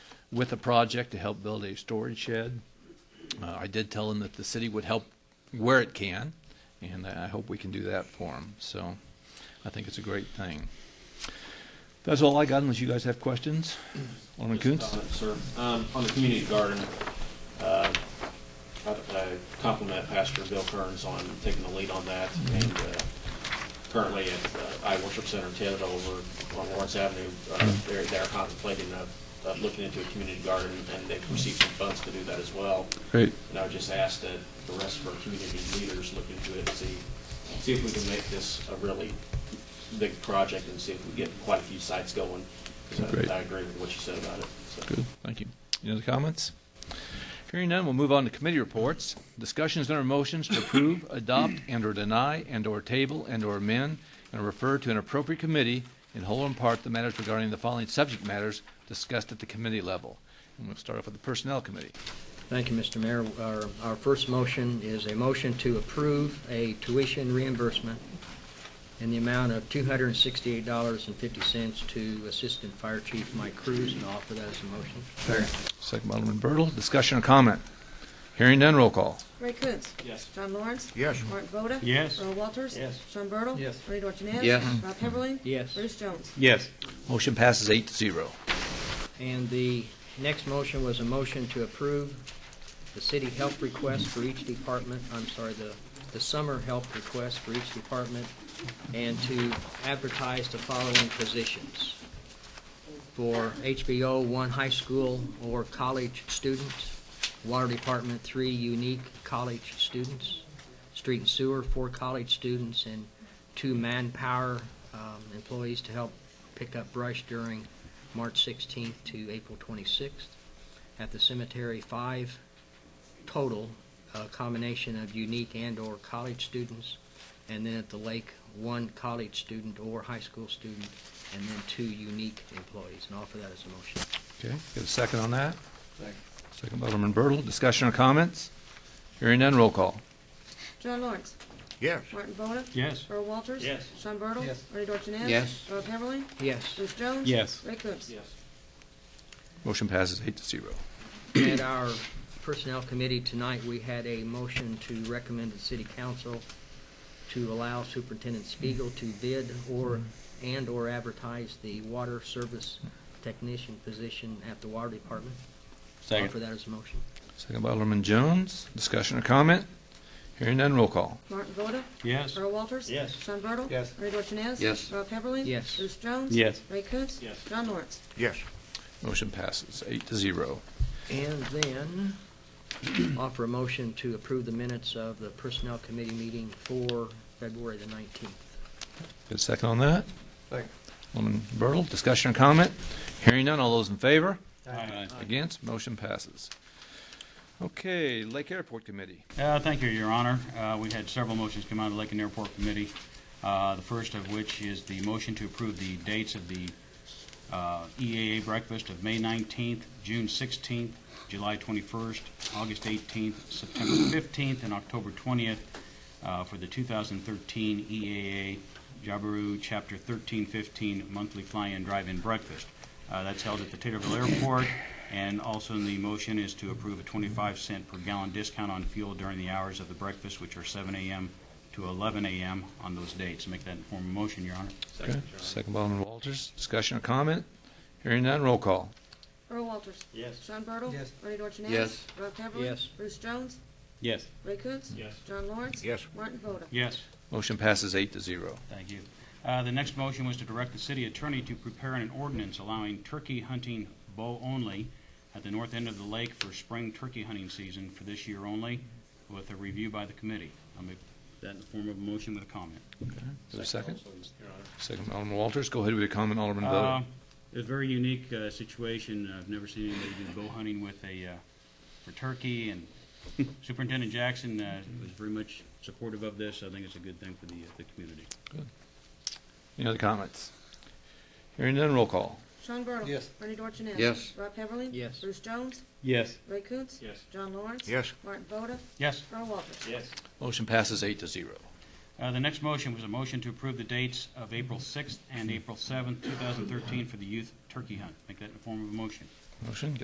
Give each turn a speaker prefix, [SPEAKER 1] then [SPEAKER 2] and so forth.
[SPEAKER 1] with a project to help build a storage shed. Uh, I did tell him that the city would help where it can, and I hope we can do that for him. So I think it's a great thing. That's all I got, unless you guys have questions. Alderman Coons?
[SPEAKER 2] Comment, Sir, um, on the community garden, uh, I I compliment Pastor Bill Kearns on taking the lead on that.
[SPEAKER 1] Mm-hmm.
[SPEAKER 2] And uh, currently at uh, I Worship Center, Ted over on Lawrence Avenue, uh,
[SPEAKER 1] Mm-hmm.
[SPEAKER 2] they're, they're contemplating, uh, uh, looking into a community garden and they've received some funds to do that as well.
[SPEAKER 1] Great.
[SPEAKER 2] And I would just ask that the rest of our community leaders look into it and see, see if we can make this a really big project and see if we get quite a few sites going. 'Cause I-
[SPEAKER 1] Great.
[SPEAKER 2] I agree with what you said about it. so.
[SPEAKER 1] Good, thank you. Any other comments? Hearing none, we'll move on to committee reports. Discussions and/or motions to approve, adopt, and/or deny, and/or table, and/or amend, and refer to an appropriate committee in whole or in part the matters regarding the following subject matters discussed at the committee level. And we'll start off with the Personnel Committee.
[SPEAKER 3] Thank you, Mr. Mayor. Our, our first motion is a motion to approve a tuition reimbursement in the amount of two hundred and sixty-eight dollars and fifty cents to Assistant Fire Chief Mike Cruz, and I offer that as a motion.
[SPEAKER 1] Second by Alderman Bertle, discussion or comment? Hearing none, roll call.
[SPEAKER 4] Ray Coons.
[SPEAKER 2] Yes.
[SPEAKER 4] John Lawrence.
[SPEAKER 5] Yes.
[SPEAKER 4] Mark Voda.
[SPEAKER 5] Yes.
[SPEAKER 4] Earl Walters.
[SPEAKER 3] Yes.
[SPEAKER 4] Sean Bertle.
[SPEAKER 3] Yes.
[SPEAKER 4] Rodney Dorchenez.
[SPEAKER 5] Yes.
[SPEAKER 4] Rob Heatherling.
[SPEAKER 3] Yes.
[SPEAKER 4] Bruce Jones.
[SPEAKER 5] Yes.
[SPEAKER 1] Motion passes eight to zero.
[SPEAKER 3] And the next motion was a motion to approve the city help request for each department, I'm sorry, the, the summer help request for each department, and to advertise the following positions. For HBO, one high school or college student. Water Department, three unique college students. Street and Sewer, four college students, and two manpower um, employees to help pick up brush during March 16th to April 26th. At the cemetery, five total, a combination of unique and/or college students. And then at the lake, one college student or high school student, and then two unique employees. And offer that as a motion.
[SPEAKER 1] Okay, get a second on that? Second. Second by Alderman Bertle, discussion or comments? Hearing none, roll call.
[SPEAKER 4] John Lawrence.
[SPEAKER 5] Yes.
[SPEAKER 4] Martin Voda.
[SPEAKER 5] Yes.
[SPEAKER 4] Earl Walters.
[SPEAKER 2] Yes.
[SPEAKER 4] Sean Bertle.
[SPEAKER 3] Yes.
[SPEAKER 4] Rodney Dorchenez.
[SPEAKER 5] Yes.
[SPEAKER 4] Rob Heatherling.
[SPEAKER 3] Yes.
[SPEAKER 4] Bruce Jones.
[SPEAKER 5] Yes.
[SPEAKER 4] Ray Coons.
[SPEAKER 2] Yes.
[SPEAKER 1] Motion passes eight to zero.
[SPEAKER 3] At our Personnel Committee tonight, we had a motion to recommend the City Council to allow Superintendent Spiegel to bid or, and/or advertise the water service technician position at the Water Department. Offer that as a motion.
[SPEAKER 1] Second by Alderman Jones. Discussion or comment? Hearing none, roll call.
[SPEAKER 4] Martin Voda.
[SPEAKER 5] Yes.
[SPEAKER 4] Earl Walters.
[SPEAKER 2] Yes.
[SPEAKER 4] Sean Bertle.
[SPEAKER 5] Yes.
[SPEAKER 4] Rodney Dorchenez.
[SPEAKER 5] Yes.
[SPEAKER 4] Rob Heatherling.
[SPEAKER 3] Yes.
[SPEAKER 4] Bruce Jones.
[SPEAKER 5] Yes.
[SPEAKER 4] Ray Coons.
[SPEAKER 2] Yes.
[SPEAKER 4] John Lawrence.
[SPEAKER 5] Yes.
[SPEAKER 1] Motion passes eight to zero.
[SPEAKER 3] And then offer a motion to approve the minutes of the Personnel Committee meeting for February the 19th.
[SPEAKER 1] Get a second on that?
[SPEAKER 5] Second.
[SPEAKER 1] Alderman Bertle, discussion or comment? Hearing none, all those in favor?
[SPEAKER 6] Aye.
[SPEAKER 1] Against? Motion passes. Okay, Lake Airport Committee.
[SPEAKER 6] Uh, Thank you, Your Honor. Uh, We had several motions come out of the Lake and Airport Committee, uh, the first of which is the motion to approve the dates of the uh, EAA breakfast of May 19th, June 16th, July 21st, August 18th, September 15th, and October 20th uh, for the 2013 EAA E Jabiru Chapter 1315 Monthly Fly-In Drive-In Breakfast. Uh, That's held at the Taterville Airport, and also in the motion is to approve a 25 cent per gallon discount on fuel during the hours of the breakfast, which are 7 a.m. to 11 a.m. on those dates. Make that in form of motion, Your Honor.
[SPEAKER 1] Okay. Second by Alderman Walters. Discussion or comment? Hearing none, roll call.
[SPEAKER 4] Earl Walters.
[SPEAKER 2] Yes.
[SPEAKER 4] Sean Bertle.
[SPEAKER 3] Yes.
[SPEAKER 4] Rodney Dorchenez.
[SPEAKER 5] Yes.
[SPEAKER 4] Rob Heatherling.
[SPEAKER 3] Yes.
[SPEAKER 4] Bruce Jones.
[SPEAKER 6] Yes.
[SPEAKER 4] Ray Coons.
[SPEAKER 2] Yes.
[SPEAKER 4] John Lawrence.
[SPEAKER 5] Yes.
[SPEAKER 4] Martin Voda.
[SPEAKER 6] Yes.
[SPEAKER 1] Motion passes eight to zero.
[SPEAKER 6] Thank you. Uh, The next motion was to direct the city attorney to prepare an ordinance allowing turkey hunting bow only at the north end of the lake for spring turkey hunting season for this year only, with a review by the committee. I'll make that in the form of a motion with a comment.
[SPEAKER 1] Is there a second?
[SPEAKER 2] Your Honor.
[SPEAKER 1] Second by Alderman Walters. Go ahead with your comment, Alderman Voda.
[SPEAKER 6] Uh, A very unique uh, situation. I've never seen anybody do bow hunting with a, uh, for turkey, and Superintendent Jackson uh, was very much supportive of this. I think it's a good thing for the, uh, the community.
[SPEAKER 1] Any other comments? Hearing none, roll call.
[SPEAKER 4] Sean Bertle.
[SPEAKER 5] Yes.
[SPEAKER 4] Bernie Dorchenez.
[SPEAKER 5] Yes.
[SPEAKER 4] Rob Heatherling.
[SPEAKER 3] Yes.
[SPEAKER 4] Bruce Jones.
[SPEAKER 6] Yes.
[SPEAKER 4] Ray Coons.
[SPEAKER 2] Yes.
[SPEAKER 4] John Lawrence.
[SPEAKER 5] Yes.
[SPEAKER 4] Martin Voda.
[SPEAKER 6] Yes.
[SPEAKER 4] Earl Walters.
[SPEAKER 2] Yes.
[SPEAKER 1] Motion passes eight to zero.
[SPEAKER 6] Uh, The next motion was a motion to approve the dates of April 6th and April 7th, 2013 for the youth turkey hunt. Make that in the form of a motion.
[SPEAKER 1] Motion,